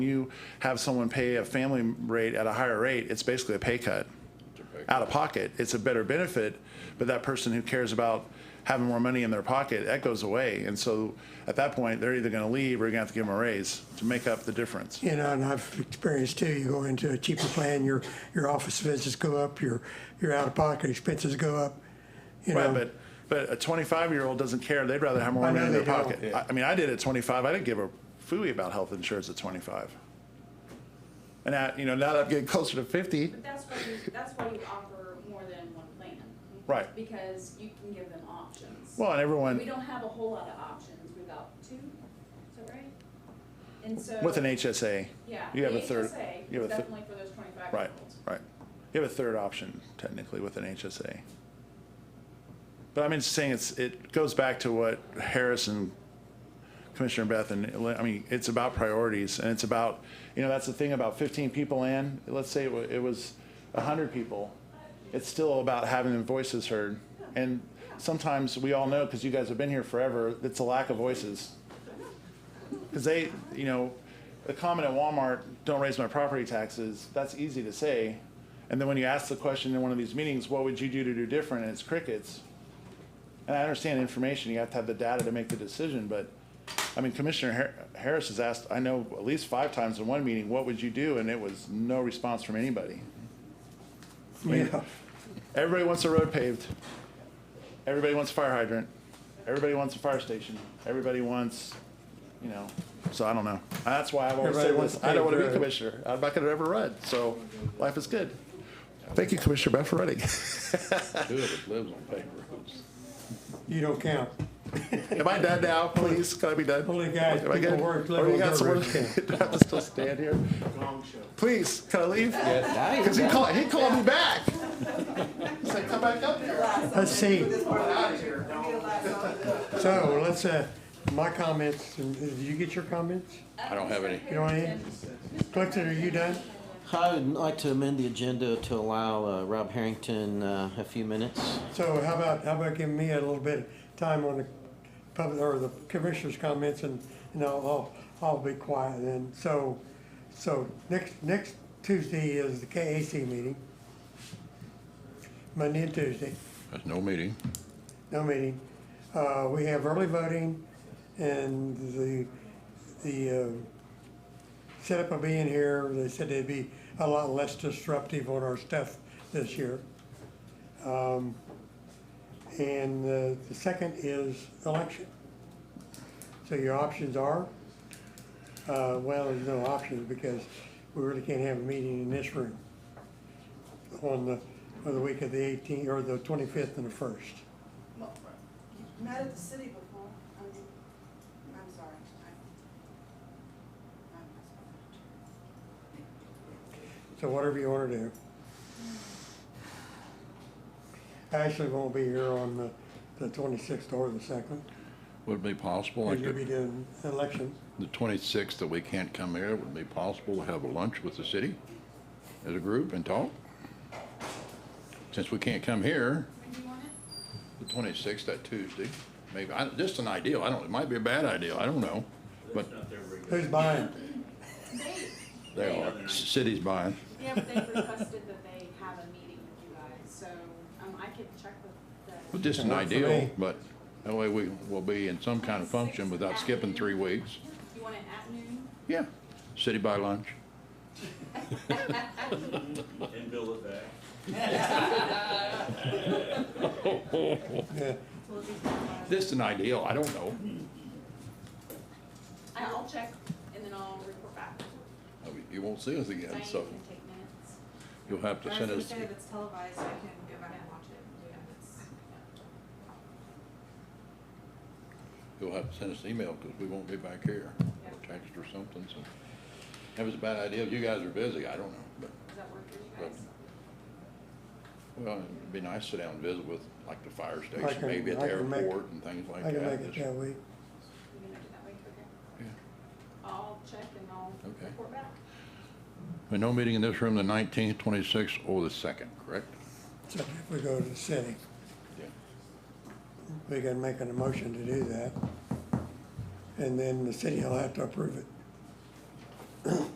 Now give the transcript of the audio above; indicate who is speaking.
Speaker 1: you have someone pay a family rate at a higher rate, it's basically a pay cut. Out of pocket, it's a better benefit, but that person who cares about having more money in their pocket, that goes away. And so at that point, they're either gonna leave or you're gonna have to give them a raise to make up the difference.
Speaker 2: You know, and I've experienced too, you go into a cheaper plan, your, your office visits go up, your, your out-of-pocket expenses go up, you
Speaker 1: Right,
Speaker 2: know.
Speaker 1: but, but a twenty-five-year-old doesn't care, they'd rather have more
Speaker 2: I
Speaker 1: money
Speaker 2: know
Speaker 1: in their
Speaker 2: they don't.
Speaker 1: pocket. I, I mean, I did at twenty-five, I didn't give a fooey about health insurance at twenty-five. And I, you know, now that I'm getting closer to fifty,
Speaker 3: But that's why you, that's why you offer more than one plan.
Speaker 1: Right.
Speaker 3: Because you can give them options.
Speaker 1: well, and everyone.
Speaker 3: We don't have a whole lot of options, we've got two, is that right? And so.
Speaker 1: With an HSA.
Speaker 3: Yeah.
Speaker 1: You have
Speaker 3: the
Speaker 1: a third.
Speaker 3: HSA
Speaker 1: you have
Speaker 3: is
Speaker 1: a thir-
Speaker 3: definitely for those twenty-five year
Speaker 1: Right,
Speaker 3: olds.
Speaker 1: right. You have a third option technically with an HSA. But I'm just saying it's, it goes back to what Harris and Commissioner Beth and, Lin- I mean, it's about priorities and it's about, you know, that's the thing about fifteen people in, let's say it wa- it was hundred people. It's still about having the voices heard. And sometimes we all know, because you guys have been here forever, it's a lack of voices. Because they, you know, the comment at Walmart, don't raise my property taxes, that's easy to say. And then when you ask the question in one of these meetings, what would you do to do different? And it's crickets. And I understand information, you have to have the data to make the decision, but, I mean, Commissioner Har- Harris has asked, I know at least five times in one meeting, what would you do? And it was no response from anybody.
Speaker 2: Yeah,
Speaker 1: Everybody wants a road paved. Everybody wants a fire hydrant. Everybody wants a fire station. Everybody wants, you know, so I don't know. That's why I've always said
Speaker 2: Everybody wants
Speaker 1: this, I don't want to be a
Speaker 2: paved road.
Speaker 1: commissioner. I'm not going to ever run, so life is good. Thank you, Commissioner Beth, for running.
Speaker 4: Two of us lives on paper roads.
Speaker 2: you don't count.
Speaker 1: Am I done now, please? Can I be done?
Speaker 2: Only guys,
Speaker 1: Am I
Speaker 2: people
Speaker 1: good?
Speaker 2: work, live
Speaker 1: Or you
Speaker 2: on
Speaker 1: got
Speaker 2: dirt
Speaker 1: someone,
Speaker 2: roads, yeah.
Speaker 1: do I have to still stand here? Please, can I leave? Because he called, he called me back. He said, come back up here.
Speaker 2: Let's see. So, let's, uh, my comments, and- did you get your comments?
Speaker 4: I don't have any.
Speaker 2: You know what I mean? Clifton, are you done?
Speaker 5: I would like to amend the agenda to allow uh, Rob Harrington uh, a few minutes.
Speaker 2: So how about, how about giving me a little bit of time on the public, or the commissioners' comments, and, and I'll, I'll, I'll be quiet then. So, so next, next Tuesday is the KAC meeting. Monday and Tuesday,
Speaker 4: That's no meeting.
Speaker 2: no meeting. Uh, we have early voting, and the, the, uh, setup of being here, they said they'd be a lot less disruptive on our stuff this year. Um, And uh, the second is election. So your options are, uh, well, there's no options because we really can't have a meeting in this room on the, on the week of the 18th, or the 25th and the 1st.
Speaker 6: Well, You've met at the city before, I mean, I'm sorry. I- I'm sorry.
Speaker 2: So whatever you want to do. Ashley won't be here on the- the 26th or the 2nd,
Speaker 4: Would it be possible, like
Speaker 2: because you'll be
Speaker 4: the
Speaker 2: doing election.
Speaker 4: the 26th that we can't come here, would it be possible to have a lunch with the city as a group and talk? Since we can't come here,
Speaker 3: When do you want it?
Speaker 4: the 26th, that Tuesday, maybe, I, just an idea, I don't, it might be a bad idea, I don't know. But
Speaker 2: Who's buying?
Speaker 3: They,
Speaker 4: they are, c- city's buying.
Speaker 3: yeah, but they've requested that they have a meeting with you guys, so, um, I could check with the.
Speaker 4: Just an
Speaker 2: Work for
Speaker 4: ideal,
Speaker 2: me.
Speaker 4: but that way we will be in some kind of function without skipping three weeks.
Speaker 3: You want it at noon?
Speaker 4: Yeah, city buy lunch.
Speaker 7: and build it back.
Speaker 2: Yeah.
Speaker 4: Just an ideal, I don't know.
Speaker 3: I- I'll check and then I'll report back.
Speaker 4: You won't see us again,
Speaker 3: Diane
Speaker 4: so
Speaker 3: can take minutes.
Speaker 4: you'll have to
Speaker 6: I
Speaker 4: send
Speaker 6: was gonna
Speaker 4: us.
Speaker 6: say, if it's televised, I can go back and watch it. Yeah, it's-
Speaker 4: You'll have to send us an email because we won't be back here, or text or something, so. That was a bad idea, if you guys are busy, I don't know, but,
Speaker 3: Does that work for you guys?
Speaker 4: well, it'd be nice to sit down and visit with, like, the fire
Speaker 2: can-
Speaker 4: station, maybe at
Speaker 2: I
Speaker 4: the
Speaker 2: can make-
Speaker 4: airport and things like
Speaker 2: I
Speaker 4: that.
Speaker 2: can make it
Speaker 4: Just-
Speaker 2: that week.
Speaker 3: You're gonna do that way, okay?
Speaker 4: Yeah.
Speaker 3: I'll check and I'll
Speaker 4: Okay.
Speaker 3: report back.
Speaker 4: But no meeting in this room the nineteenth, twenty-sixth, or the second, correct?
Speaker 2: So if we go to the city.
Speaker 4: Yeah.
Speaker 2: we can make an emotion to do that. And then the city will have to approve it.